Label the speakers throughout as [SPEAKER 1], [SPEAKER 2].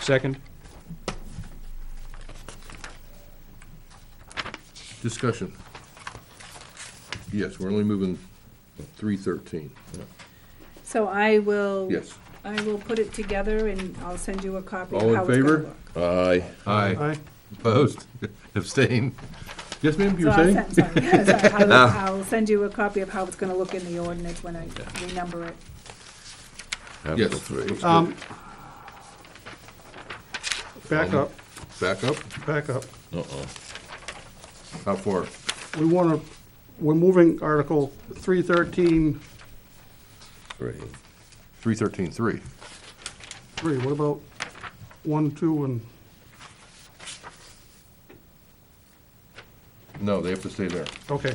[SPEAKER 1] Second?
[SPEAKER 2] Discussion. Yes, we're only moving three thirteen.
[SPEAKER 3] So I will.
[SPEAKER 2] Yes.
[SPEAKER 3] I will put it together and I'll send you a copy of
[SPEAKER 2] All
[SPEAKER 3] how
[SPEAKER 2] in
[SPEAKER 3] it's gonna
[SPEAKER 2] favor?
[SPEAKER 3] look.
[SPEAKER 2] Aye. Aye.
[SPEAKER 1] Aye.
[SPEAKER 2] Opposed? Abstain? Yes, ma'am, you
[SPEAKER 3] So
[SPEAKER 2] were
[SPEAKER 3] I'll
[SPEAKER 2] saying? Ah.
[SPEAKER 3] send, sorry, yes, I- I will- I'll send you a copy of how it's gonna look in the ordinance when I renumber it.
[SPEAKER 2] Yes.
[SPEAKER 4] Article three.
[SPEAKER 2] looks
[SPEAKER 1] Um,
[SPEAKER 2] good.
[SPEAKER 1] Back up,
[SPEAKER 2] Back up?
[SPEAKER 1] back up.
[SPEAKER 4] Uh-oh.
[SPEAKER 2] How far?
[SPEAKER 1] We want to, we're moving Article 313,
[SPEAKER 4] Three.
[SPEAKER 2] Three thirteen, three.
[SPEAKER 1] 3. What about 1, 2, and,
[SPEAKER 2] No, they have to stay there.
[SPEAKER 1] okay.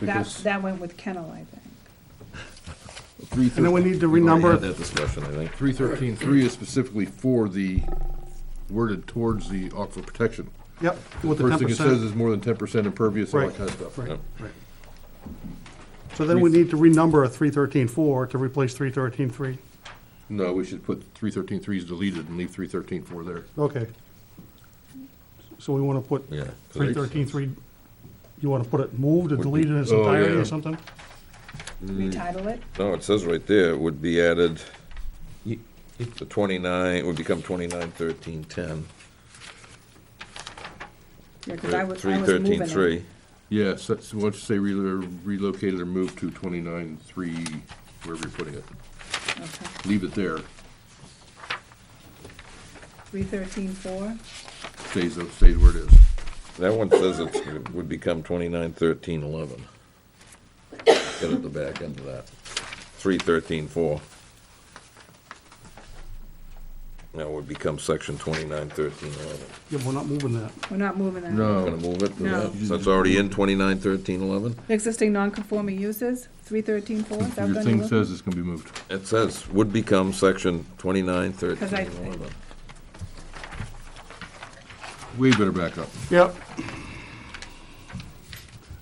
[SPEAKER 3] That,
[SPEAKER 2] Because
[SPEAKER 3] that went with kennel, I think.
[SPEAKER 2] three
[SPEAKER 1] And then we
[SPEAKER 2] thirteen,
[SPEAKER 1] need to
[SPEAKER 4] We've already had
[SPEAKER 1] renumber,
[SPEAKER 4] That discussion, I think.
[SPEAKER 2] three thirteen, three is specifically for the, worded towards the aquifer protection.
[SPEAKER 1] yep, with the
[SPEAKER 2] First thing it says
[SPEAKER 1] 10%.
[SPEAKER 2] is more than ten percent impervious, all that
[SPEAKER 1] Right,
[SPEAKER 2] kind of stuff.
[SPEAKER 1] right,
[SPEAKER 4] Yep.
[SPEAKER 1] right. So then we need to renumber a 313-4 to replace 313-3.
[SPEAKER 2] No, we should put three thirteen, three is deleted and leave three thirteen, four there.
[SPEAKER 1] Okay. So we want to put
[SPEAKER 4] Yeah.
[SPEAKER 1] 313-3, you want to put it moved or deleted in its
[SPEAKER 2] Oh,
[SPEAKER 1] entirety
[SPEAKER 2] yeah.
[SPEAKER 1] or something?
[SPEAKER 2] Mm.
[SPEAKER 3] Retitle it.
[SPEAKER 4] No, it says right there, it would be added, the twenty-nine, it would become twenty-nine, thirteen, ten.
[SPEAKER 3] Yeah, 'cause I was, I
[SPEAKER 4] Three,
[SPEAKER 3] was moving
[SPEAKER 4] thirteen,
[SPEAKER 3] it.
[SPEAKER 4] three.
[SPEAKER 2] Yes, that's, why don't you say relo- relocated or moved to twenty-nine, three, wherever you're putting it.
[SPEAKER 3] Okay.
[SPEAKER 2] Leave it there,
[SPEAKER 3] Three thirteen four,
[SPEAKER 2] stays, stays where it is.
[SPEAKER 4] That one says it's- it would become twenty-nine, thirteen, eleven. Get at the back end of that. Three, thirteen, four. Now it would become section twenty-nine, thirteen, eleven.
[SPEAKER 1] Yeah, we're not moving that.
[SPEAKER 3] we're not moving that.
[SPEAKER 4] Gonna
[SPEAKER 2] No,
[SPEAKER 4] move it? to
[SPEAKER 3] No.
[SPEAKER 4] that? So it's already in twenty-nine, thirteen, eleven?
[SPEAKER 3] Existing non-conforming uses, three thirteen four, is that
[SPEAKER 2] your
[SPEAKER 3] gonna
[SPEAKER 2] thing
[SPEAKER 3] look?
[SPEAKER 2] says it's gonna be moved.
[SPEAKER 4] It says, would become section twenty-nine, thirteen,
[SPEAKER 3] Because I-
[SPEAKER 4] eleven.
[SPEAKER 2] Way better back up,
[SPEAKER 1] Yep.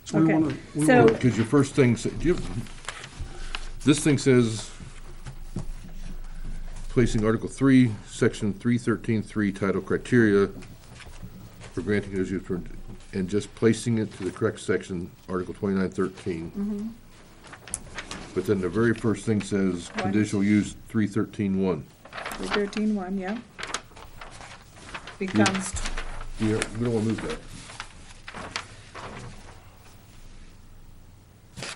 [SPEAKER 1] So we
[SPEAKER 3] Okay.
[SPEAKER 1] want to, we
[SPEAKER 3] So-
[SPEAKER 1] want,
[SPEAKER 2] because your first thing, sa- do you, this thing says, placing Article three, Section three thirteen three title criteria for granting it as used for, and just placing it to the correct section, Article twenty-nine thirteen.
[SPEAKER 3] Mm-hmm.
[SPEAKER 2] But then the very first thing says,
[SPEAKER 3] Why?
[SPEAKER 2] conditional use three thirteen one.
[SPEAKER 3] Three thirteen one, yeah. Becomes, tw-
[SPEAKER 2] We don't, we don't wanna move that.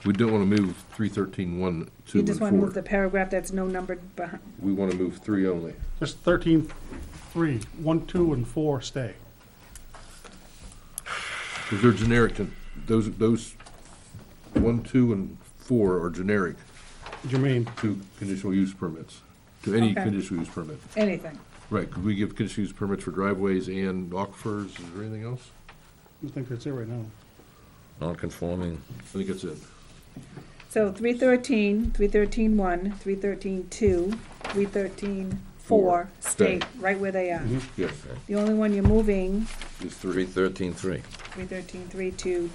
[SPEAKER 2] We don't wanna move three thirteen one, two,
[SPEAKER 3] you
[SPEAKER 2] and
[SPEAKER 3] just wanna move the
[SPEAKER 2] four.
[SPEAKER 3] paragraph that's no numbered behind,
[SPEAKER 2] We wanna move three only.
[SPEAKER 1] just 13, 3, 1, 2, and 4 stay.
[SPEAKER 2] Because they're generic to, those, those, one, two, and four are generic
[SPEAKER 1] What do you mean?
[SPEAKER 2] to conditional use permits, to any
[SPEAKER 3] Okay.
[SPEAKER 2] conditional use permit.
[SPEAKER 3] anything.
[SPEAKER 2] Right, could we give conditional use permits for driveways and aquifers, is there anything else?
[SPEAKER 1] I think that's it right now.
[SPEAKER 4] Non-conforming.
[SPEAKER 2] I think that's it.
[SPEAKER 3] So three thirteen, three thirteen one, three thirteen two, three thirteen
[SPEAKER 2] Four.
[SPEAKER 3] four, stay
[SPEAKER 2] Stay.
[SPEAKER 3] right where they
[SPEAKER 4] Mm-hmm.
[SPEAKER 3] are.
[SPEAKER 1] Mm-hmm.
[SPEAKER 2] Yes,
[SPEAKER 3] The only one you're moving,
[SPEAKER 2] it's three,
[SPEAKER 4] Three, thirteen, three.
[SPEAKER 3] three thirteen three to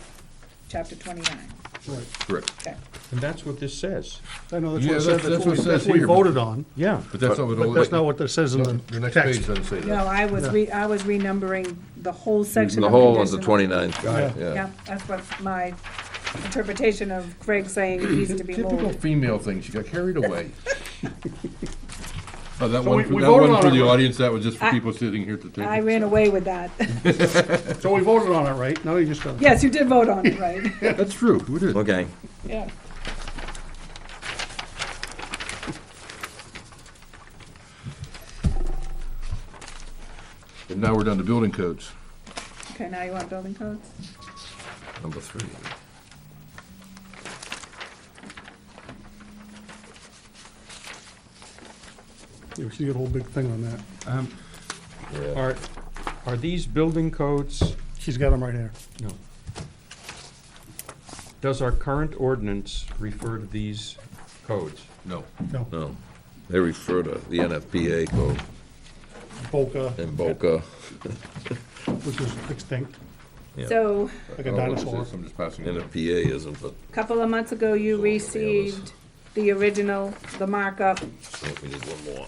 [SPEAKER 3] chapter twenty-nine,
[SPEAKER 1] Right.
[SPEAKER 2] correct.
[SPEAKER 3] okay.
[SPEAKER 5] And that's what this says.
[SPEAKER 1] I know, that's
[SPEAKER 2] Yeah,
[SPEAKER 1] what it
[SPEAKER 2] that's-
[SPEAKER 1] said,
[SPEAKER 2] that's
[SPEAKER 1] that's
[SPEAKER 2] what
[SPEAKER 1] what
[SPEAKER 2] it
[SPEAKER 1] we-
[SPEAKER 2] says
[SPEAKER 1] that's what we
[SPEAKER 2] here.
[SPEAKER 1] voted on.
[SPEAKER 5] Yeah.
[SPEAKER 2] But that's not what.
[SPEAKER 1] But that's not what that says in
[SPEAKER 2] No,
[SPEAKER 1] the
[SPEAKER 2] The next page
[SPEAKER 1] text.
[SPEAKER 2] doesn't say that.
[SPEAKER 3] No, I was
[SPEAKER 1] Yeah.
[SPEAKER 3] re, I was renumbering the whole section
[SPEAKER 4] The
[SPEAKER 3] of
[SPEAKER 4] whole is the
[SPEAKER 3] conditional.
[SPEAKER 4] twenty-nine,
[SPEAKER 1] Yeah.
[SPEAKER 4] yeah.
[SPEAKER 3] Yeah, that's what my interpretation of Craig saying it needs to be
[SPEAKER 2] Typical
[SPEAKER 3] moved.
[SPEAKER 2] female thing, she got carried away. Oh, that
[SPEAKER 1] So
[SPEAKER 2] one,
[SPEAKER 1] we-
[SPEAKER 2] for-
[SPEAKER 1] we
[SPEAKER 2] that
[SPEAKER 1] voted
[SPEAKER 2] one
[SPEAKER 1] on
[SPEAKER 2] for
[SPEAKER 1] it,
[SPEAKER 2] the
[SPEAKER 1] right?
[SPEAKER 2] audience, that was just for
[SPEAKER 3] I-
[SPEAKER 2] people sitting here at the
[SPEAKER 3] I
[SPEAKER 2] table.
[SPEAKER 3] ran away with that.
[SPEAKER 1] So we voted on it, right? Now you just uh, gotta.
[SPEAKER 3] Yes, you did vote on it, right?
[SPEAKER 2] That's true, we did.
[SPEAKER 4] Okay.
[SPEAKER 3] Yeah.
[SPEAKER 2] And now we're down to building codes.
[SPEAKER 3] Okay, now you want building codes?
[SPEAKER 4] Number three.
[SPEAKER 1] You see a whole big thing on that.
[SPEAKER 5] Um,
[SPEAKER 4] Yeah.
[SPEAKER 5] Are, are these building codes,
[SPEAKER 1] She's got them right here.
[SPEAKER 5] no. Does our current ordinance refer to these codes?
[SPEAKER 2] No. Oh,
[SPEAKER 1] No,
[SPEAKER 4] No, they refer to the NFPA code
[SPEAKER 1] Boca,
[SPEAKER 4] in Boca.
[SPEAKER 1] which is extinct,
[SPEAKER 4] Yeah.
[SPEAKER 3] So,
[SPEAKER 1] like
[SPEAKER 2] Oh,
[SPEAKER 1] a dinosaur.
[SPEAKER 2] I'm just passing it down.
[SPEAKER 4] NFPA isn't, but
[SPEAKER 3] a couple of months ago, you
[SPEAKER 4] It's all over the others.
[SPEAKER 3] received the original, the markup,
[SPEAKER 4] I think we need one more.